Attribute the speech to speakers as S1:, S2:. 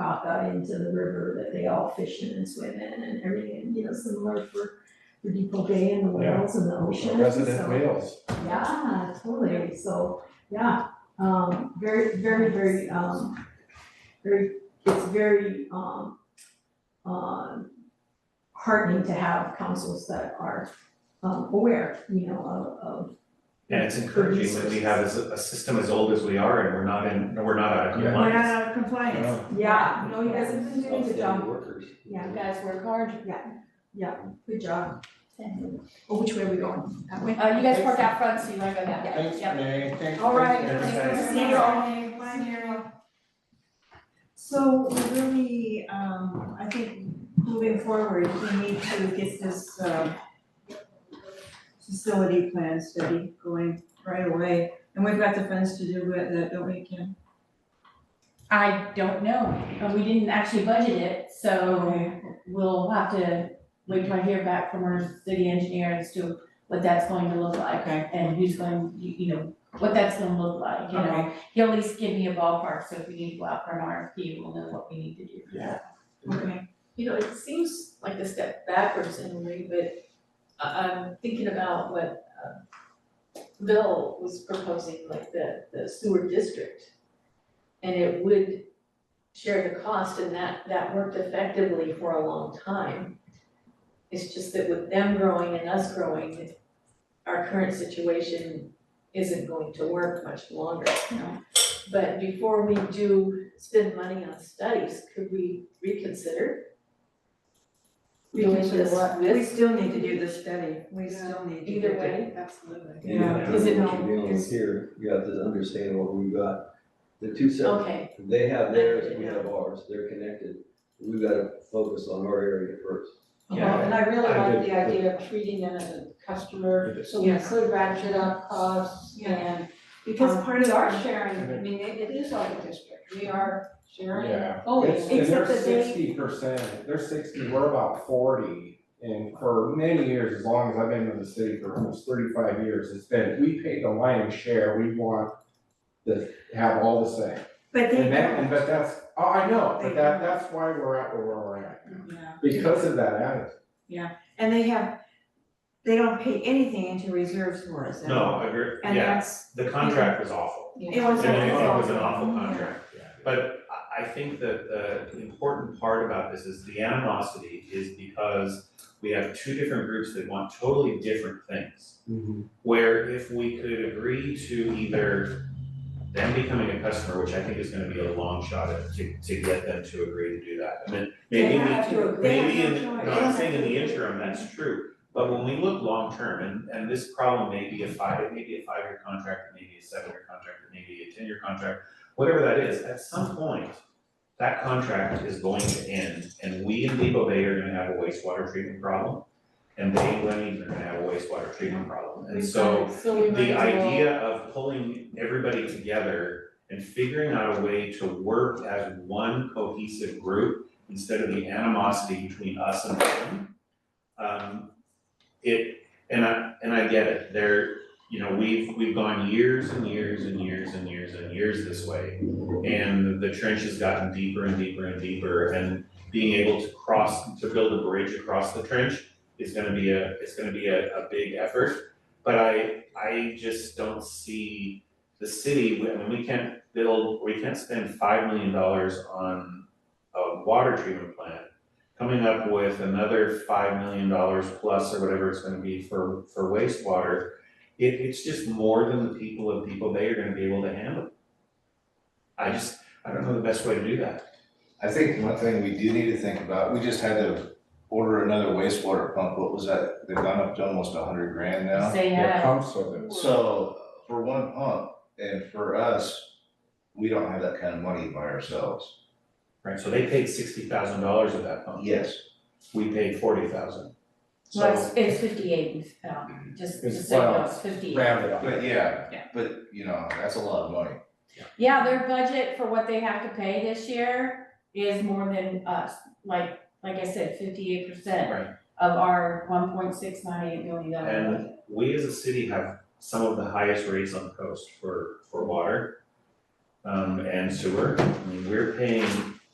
S1: out into the river that they all fished in and swam in and everything, you know, similar for the Depot Bay and the whales and the ocean,
S2: Resident
S1: so-
S2: Wales.
S1: Yeah, totally, so, yeah, um, very, very, very, um, very, it's very, um, um, heartening to have councils that are, um, aware, you know, of, of,
S3: And it's encouraging that we have a, a system as old as we are and we're not in, we're not out of
S2: Yeah.
S4: We're not
S3: compliance.
S4: out of compliance.
S1: yeah, no, you guys have been doing a good job,
S5: workers.
S1: yeah.
S4: You guys work hard.
S1: Good job. Oh, which way are we going? That way?
S4: Uh, you guys parked out front, so you wanna go that way.
S6: Thanks,
S4: Yep.
S6: May, thanks.
S1: All right.
S2: Thanks, guys.
S4: See you all.
S6: Bye, Daryl.
S4: So we're really, um, I think moving forward, we need to get this, um, facility plan study going right away, and we've got the funds to do with that, don't we, Kim?
S7: I don't know, but we didn't actually budget it, so we'll have to wait till I hear back from our city engineer as to what that's going to look like
S4: Okay.
S7: and who's going, you, you know, what that's gonna look like, you know?
S4: Okay,
S7: He'll at least give me a ballpark, so if we need to go out for an RFP, we'll know what we need to do for that.
S4: okay.
S8: you know, it seems like a step backwards in a way, but I, I'm thinking about what, um, Bill was proposing, like the, the sewer district. And it would share the cost and that, that worked effectively for a long time. It's just that with them growing and us growing, our current situation isn't going to work much longer.
S7: No.
S8: But before we do spend money on studies, could we reconsider? doing this
S4: We
S8: with
S4: still need to do the study, we still need to do
S8: either
S4: it.
S8: way, absolutely.
S5: And you have to
S8: Is it
S5: know
S8: not-
S5: what you're dealing with
S8: is-
S5: here, you have to understand what we've got. The two separate,
S8: Okay,
S5: they have theirs, we have ours, they're connected. We've gotta focus on our area first.
S3: Yeah.
S9: And I really
S3: I
S9: like
S3: did.
S9: the idea of treating them as a
S3: It
S9: customer,
S3: is.
S9: so we
S4: Yes.
S9: could ratchet up costs
S4: Yeah.
S9: and.
S4: Because
S9: um,
S4: part of
S9: We
S4: our
S9: are sharing, I mean, it it is like a district, we are sharing
S2: Yeah.
S9: fully.
S2: It's- And they're
S4: Oh, Except that they-
S2: sixty percent, they're sixty, we're about forty. And for many years, as long as I've been in the city for almost thirty-five years, it's been, we pay the lion's share, we want to have all the same.
S4: But they
S2: And that, and
S4: don't,
S2: but that's, oh, I know,
S4: They
S2: but that,
S4: don't.
S2: that's why we're at where we're at,
S4: yeah,
S2: because of that attitude.
S4: and they have, they don't pay anything into reserves for us. and-
S3: No, I agree,
S4: And
S3: yeah,
S4: that's,
S3: the contract was awful.
S4: it was.
S3: And it it was an
S4: awful.
S3: awful contract. But I, I think that the important part about this is the animosity is because we have two different groups that want totally different things. Where if we could agree to either them becoming a customer, which I think is gonna be a long shot at- to, to get them to agree to do that. And then maybe we
S4: have to agree.
S3: maybe in,
S4: They have no choice.
S3: no, I'm saying in the interim, that's true, but when we look long-term, and, and this problem may be a five, it may be a five-year contract, it may be a seven-year contract, it may be a ten-year contract, whatever that is, at some point, that contract is going to end, and we in Depot Bay are gonna have a wastewater treatment problem, and they, in Lebanon, are gonna have a wastewater treatment problem, and so
S8: so we might
S3: the
S8: as well-
S3: idea of pulling everybody together and figuring out a way to work as one cohesive group instead of the animosity between us and them. Um, it, and I, and I get it, there, you know, we've, we've gone years and years and years and years and years this way. And the trench has gotten deeper and deeper and deeper, and being able to cross, to build a bridge across the trench is gonna be a, it's gonna be a, a big effort. But I, I just don't see the city, I mean, we can't build, we can't spend five million dollars on a water treatment plant. Coming up with another five million dollars plus or whatever it's gonna be for, for wastewater. It, it's just more than the people of Depot Bay are gonna be able to handle. I just, I don't know the best way to do that.
S10: I think one thing we do need to think about, we just had to order another wastewater pump, what was that, they've gone up to almost a hundred grand now.
S7: Say,
S2: Their
S7: uh,
S2: pumps are the-
S10: So for one pump, and for us, we don't have that kind of money by ourselves,
S3: Right, so they paid sixty thousand dollars of that pump.
S10: yes.
S3: We paid forty thousand.
S7: well,
S3: So,
S7: it's, it's fifty-eight, um, just,
S2: It's
S7: just so you know, it's
S2: well,
S7: fifty-eight.
S2: Round it up.
S10: But yeah,
S7: Yeah.
S10: but you know, that's a lot of money.
S7: Yeah, their budget for what they have to pay this year is more than us, like, like I said, fifty-eight percent
S3: right.
S7: of our one point six nine eight million dollar budget.
S3: And we as a city have some of the highest rates on the coast for, for water. Um, and sewer, I mean, we're paying